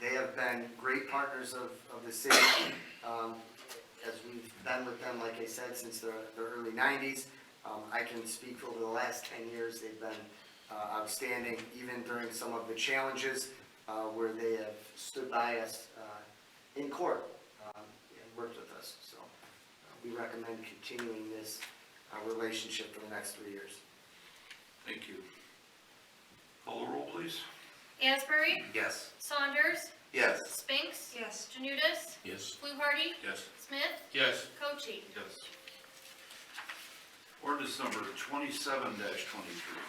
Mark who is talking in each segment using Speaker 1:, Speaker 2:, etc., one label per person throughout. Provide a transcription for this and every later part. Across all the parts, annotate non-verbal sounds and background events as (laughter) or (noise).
Speaker 1: been great partners of, of the city, um, as we've been with them, like I said, since the, the early nineties. Um, I can speak for over the last ten years, they've been uh, outstanding, even during some of the challenges, uh, where they have stood by us, uh, in court, um, and worked with us, so. uh, We recommend continuing this, uh, relationship for the next three years.
Speaker 2: Thank you. Call the roll, please.
Speaker 3: Asbury?
Speaker 2: Yes.
Speaker 3: Saunders?
Speaker 2: Yes.
Speaker 3: Spinks?
Speaker 4: Yes.
Speaker 3: Janudis,
Speaker 5: Yes.
Speaker 3: Fluharty?
Speaker 2: Yes.
Speaker 3: Smith?
Speaker 5: Yes.
Speaker 3: Cochee?
Speaker 2: Yes. Ordinance number twenty-seven twenty-three.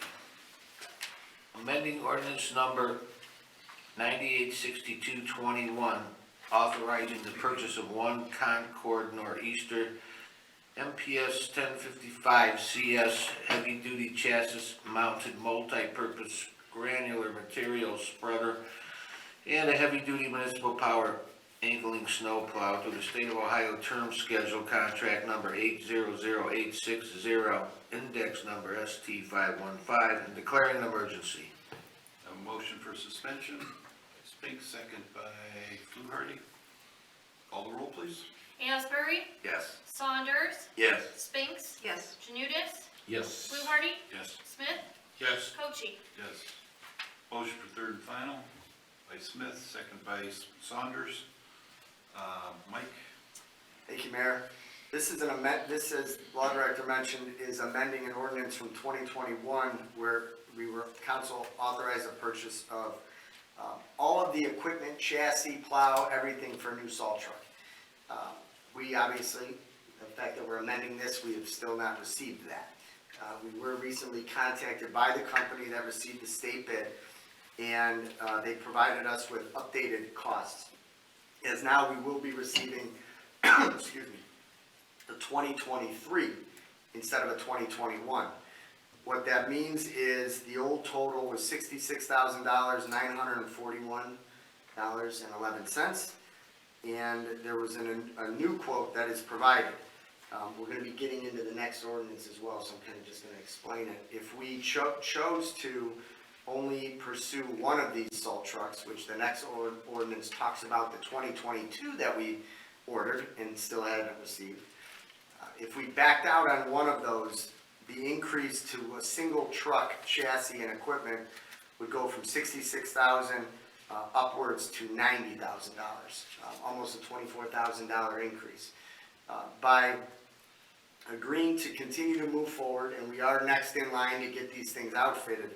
Speaker 5: Amending ordinance number 986221, authorizing the purchase of one Concord Nor'easter MPS 1055 CS heavy-duty chassis mounted multi-purpose granular material spreader and a heavy-duty municipal power angling snowplow through the State of Ohio Term Schedule Contract Number 800860, Index Number ST515, and declaring an emergency.
Speaker 2: Have a motion for suspension, by Spinks, second by Fluharty. Call the roll, please.
Speaker 3: Asbury?
Speaker 2: Yes.
Speaker 3: Saunders?
Speaker 2: Yes.
Speaker 3: Spinks?
Speaker 4: Yes.
Speaker 3: Janudis,
Speaker 5: Yes.
Speaker 3: Fluharty?
Speaker 2: Yes.
Speaker 3: Smith?
Speaker 5: Yes.
Speaker 3: Cochee?
Speaker 2: Yes. Motion for third and final by Smith, second by Saunders. Uh, Mike?
Speaker 1: Thank you, Mayor. This is an amend, this is, Law Director mentioned, is amending an ordinance from 2021 where we were, council authorized the purchase of um, all of the equipment, chassis, plow, everything for a new salt truck. Um, We obviously, the fact that we're amending this, we have still not received that. Uh, We were recently contacted by the company that received the state bid, and uh, they provided us with updated costs. As now, we will be receiving (coughs) excuse me, the 2023 instead of a 2021. What that means is the old total was $66,941.11. And there was an- a new quote that is provided. Um, We're going to be getting into the next ordinance as well, so I'm kind of just going to explain it. If we cho- chose to only pursue one of these salt trucks, which the next or- ordinance talks about the 2022 that we ordered and still hadn't received. Uh, If we backed out on one of those, the increase to a single truck chassis and equipment would go from sixty-six thousand uh, upwards to ninety thousand dollars, um, almost a twenty-four thousand dollar increase. Uh, By agreeing to continue to move forward, and we are next in line to get these things outfitted,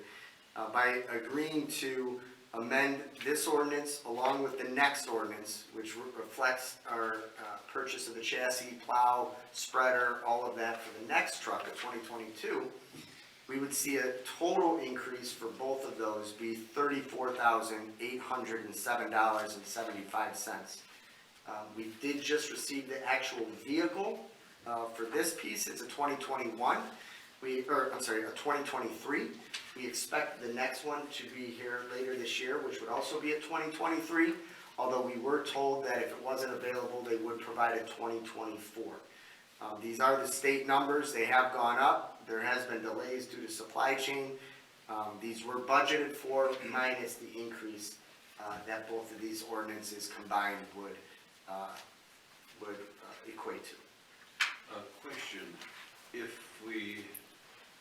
Speaker 1: uh, by agreeing to amend this ordinance along with the next ordinance, which re- reflects our uh, purchase of the chassis, plow, spreader, all of that for the next truck of 2022, we would see a total increase for both of those be $34,807.75. Um, We did just receive the actual vehicle uh, for this piece, it's a 2021, we, or, I'm sorry, a 2023. We expect the next one to be here later this year, which would also be a 2023, although we were told that if it wasn't available, they would provide a 2024. Um, These are the state numbers, they have gone up, there has been delays due to supply chain. Um, These were budgeted for minus the increase uh, that both of these ordinances combined would, uh, would uh, equate to.
Speaker 2: A question, if we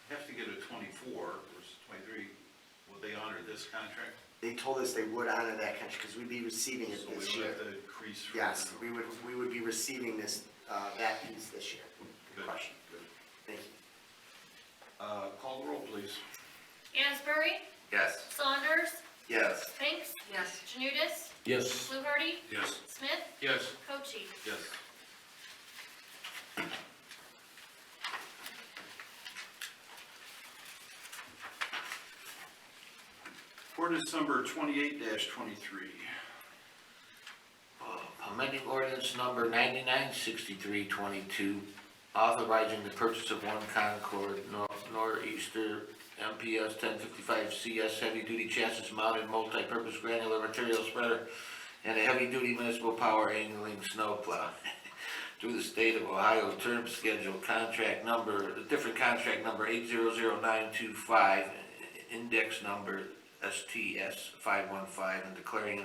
Speaker 2: have to get a twenty-four versus twenty-three, will they honor this contract?
Speaker 1: They told us they would honor that contract because we'd be receiving it
Speaker 2: So we
Speaker 1: this
Speaker 2: would
Speaker 1: year.
Speaker 2: have to increase. from-
Speaker 1: Yes, we would, we would be receiving this, uh, that piece this year. Good
Speaker 2: Good,
Speaker 1: question.
Speaker 2: good.
Speaker 1: Thank you.
Speaker 2: Uh, call the roll, please.
Speaker 3: Asbury?
Speaker 2: Yes.
Speaker 3: Saunders?
Speaker 2: Yes.
Speaker 3: Spinks?
Speaker 4: Yes.
Speaker 3: Janudis,
Speaker 5: Yes.
Speaker 3: Fluharty?
Speaker 2: Yes.
Speaker 3: Smith?
Speaker 5: Yes.
Speaker 3: Cochee?
Speaker 2: Yes. Ordinance number twenty-eight twenty-three.
Speaker 5: Amending ordinance number 996322, authorizing the purchase of one Concord Nor- Nor'easter MPS 1055 CS heavy-duty chassis mounted multi-purpose granular material spreader and a heavy-duty municipal power angling snowplow (laughs) through the state of Ohio term schedule contract number, different contract number 800925, index number STS 515, and declaring an